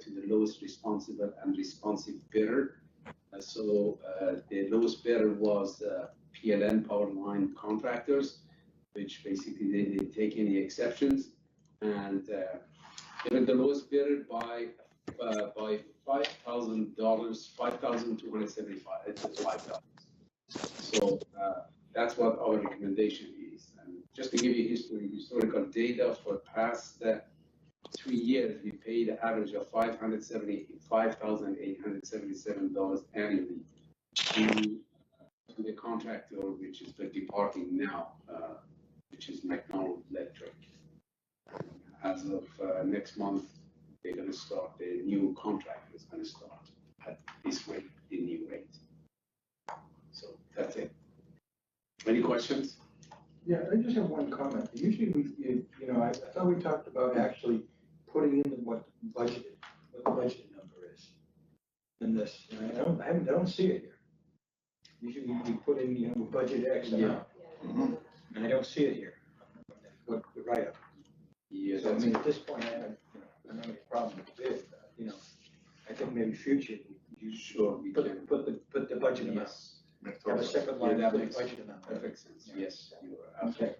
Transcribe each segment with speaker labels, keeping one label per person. Speaker 1: to the lowest responsible and responsive bidder. Uh, So uh, the lowest bidder was uh, PLN Power Line Contractors, which basically they didn't take any exceptions. And uh, they were the lowest bidder by, uh, by five thousand dollars, five thousand two hundred seventy-five, it's five dollars. So uh, that's what our recommendation is. And just to give you history, historical data for past uh, three years, we paid an average of five hundred seventy, five thousand eight hundred seventy-seven dollars annually to to the contractor, which is the departing now, uh, which is McDonald Electric. As of uh, next month, they're gonna start, the new contract is gonna start at this rate, the new rate. So that's it. Any questions?
Speaker 2: Yeah, I just have one comment. Usually we, you you know, I, I thought we talked about actually putting in what budgeted, what the budget number is in this, and I don't, I haven't, I don't see it here. Usually we- we put in, you know, budget X amount, and I don't see it here. What, the write-up.
Speaker 1: Yeah,
Speaker 2: So I
Speaker 1: that's
Speaker 2: mean, at this point, I haven't, you know, I don't have any problem with it, but, you know, I think maybe future, you should
Speaker 1: Sure, we can.
Speaker 2: put, put the, put the budget amount.
Speaker 1: Yes.
Speaker 2: Have a separate
Speaker 1: Yeah,
Speaker 2: line
Speaker 1: that
Speaker 2: for the
Speaker 1: makes-
Speaker 2: budget amount.
Speaker 1: That makes sense. Yes, you are
Speaker 2: Okay.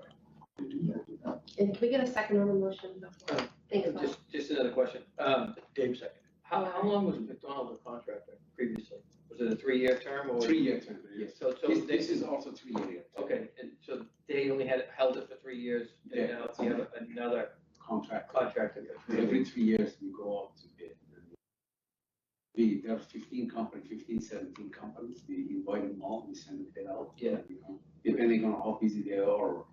Speaker 1: absolutely right. We do that.
Speaker 3: And can we get a second on the motion before? Thanks, Bob.
Speaker 4: Oh, Just, just another question. Um,
Speaker 2: Dave second.
Speaker 4: how, how long was McDonald a contractor previously? Was it a three-year term or?
Speaker 1: Three-year term, yes.
Speaker 4: So, so
Speaker 1: This,
Speaker 4: they,
Speaker 1: this is also three-year
Speaker 4: okay, and so they only had, held it for three years
Speaker 1: Yeah.
Speaker 4: and now we have another
Speaker 1: contract.
Speaker 4: contractor.
Speaker 1: Every three years, we go out to bid. We, there are fifteen companies, 15, 17 companies, we invite them all, we send the bid out.
Speaker 4: Yeah.
Speaker 1: you know, Depending on how busy they are, or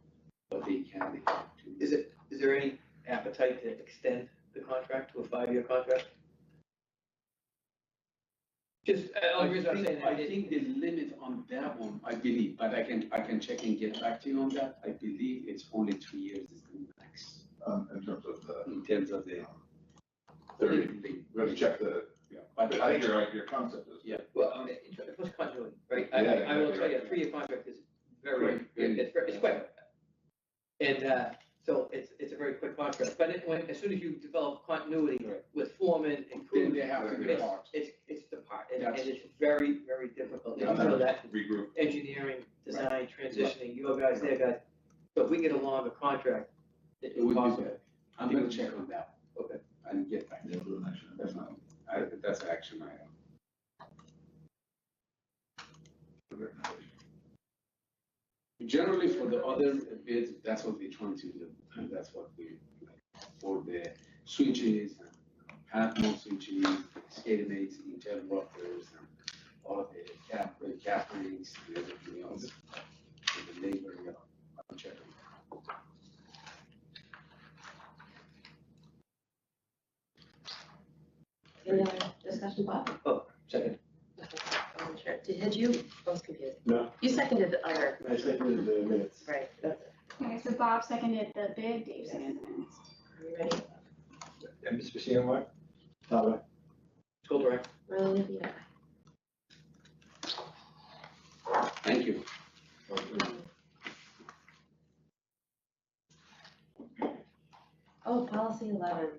Speaker 1: what they can, they can do.
Speaker 4: Is it, is there any appetite to extend the contract to a five-year contract? Just, uh,
Speaker 1: I
Speaker 4: only reason I'm saying
Speaker 1: think,
Speaker 4: that
Speaker 1: I
Speaker 4: is-
Speaker 1: think the limit on that one, I believe, but I can, I can check and get back to you on that. I believe it's only three years is the max,
Speaker 5: um, in terms of the,
Speaker 1: in terms of the.
Speaker 5: Thirty. we have to check the,
Speaker 1: Yeah,
Speaker 5: I
Speaker 1: But
Speaker 5: think
Speaker 1: I,
Speaker 5: your, your concept is.
Speaker 4: Well, I mean, it's- it's what's continuity, right? I,
Speaker 5: Yeah,
Speaker 4: I I will
Speaker 5: exactly
Speaker 4: tell you, a
Speaker 5: right.
Speaker 4: three-year contract is very,
Speaker 1: Quick, very-
Speaker 4: it's, very- it's quick. And, uh, so it's, it's a very quick contract, but it, when, as soon as you develop continuity
Speaker 1: Right.
Speaker 4: with foreman and
Speaker 1: then
Speaker 4: crew,
Speaker 1: they have to be
Speaker 4: it's,
Speaker 1: part.
Speaker 4: it's, it's the part, and, and
Speaker 1: That's-
Speaker 4: it's very, very difficult,
Speaker 1: Yeah,
Speaker 4: and so that
Speaker 5: Regroup.
Speaker 4: engineering, design, transitioning, your guys, their guys. So if we get a longer contract, it
Speaker 1: It would
Speaker 4: would
Speaker 1: be
Speaker 4: cost,
Speaker 1: better. I'm gonna check on that.
Speaker 4: Okay.
Speaker 1: And get back.
Speaker 5: Yeah, for the next one.
Speaker 1: That's not, I, that's uh, an action item. Generally, for the other bids, that's what we're trying to do, and that's what we, for the switches, and um, half moon switches, SCADA mates, interrupters, and all of the cap, the cap rings, and everything else. And the labor, yeah, I'm checking.
Speaker 3: Any other discussion, Bob?
Speaker 4: Oh, second,
Speaker 3: Okay, I wasn't sure. Did, had you, I was confused.
Speaker 6: No.
Speaker 3: You seconded the other,
Speaker 6: I seconded the minutes.
Speaker 3: right, that's it.
Speaker 7: Okay, so Bob seconded the bid, Dave seconded the minutes.
Speaker 3: Are you ready?
Speaker 2: And Mr. CNY?
Speaker 6: Bye-bye.
Speaker 4: school director.
Speaker 3: Well, yeah.
Speaker 1: Thank you.
Speaker 3: Oh, policy eleven,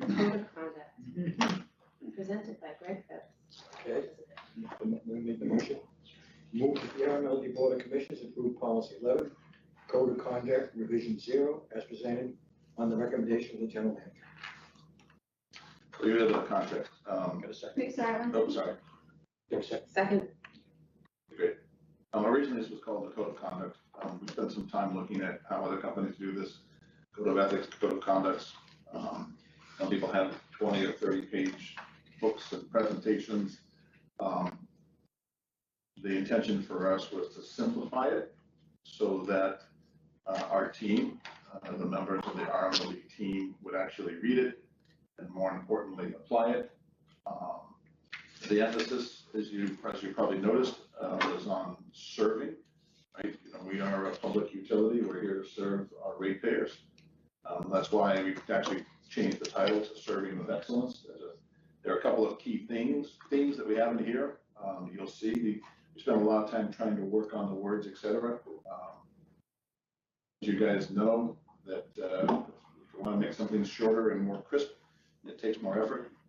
Speaker 3: code of conduct,
Speaker 4: Mm-hmm.
Speaker 3: presented by Greg Phipps.
Speaker 2: Okay. Let me make the motion. Move that the RMLD Board of Commissioners approve policy eleven, code of conduct revision zero as presented on the recommendation of the general manager.
Speaker 5: Leave it in the contract, um,
Speaker 2: Got a second?
Speaker 7: Wait, sorry, one
Speaker 5: oh,
Speaker 7: second.
Speaker 5: sorry,
Speaker 2: Got a second.
Speaker 3: Second,
Speaker 5: great. Um, originally this was called the code of conduct, um, we spent some time looking at how other companies do this, code of ethics, code of conducts. Um, some people have twenty or thirty page books and presentations. Um, The intention for us was to simplify it so that uh, our team, uh, the members of the RMLD team would actually read it and more importantly, apply it. Um, The emphasis, as you, as you probably noticed, uh, was on serving, right? You know, we are a public utility, we're here to serve our ratepayers. Um, That's why we actually changed the title to Serving with Excellence. There's a- There are a couple of key things, themes that we have in here. Um, You'll see, we we spent a lot of time trying to work on the words, et cetera. Um, As you guys know, that uh, if you want to make something shorter and more crisp, it takes more effort.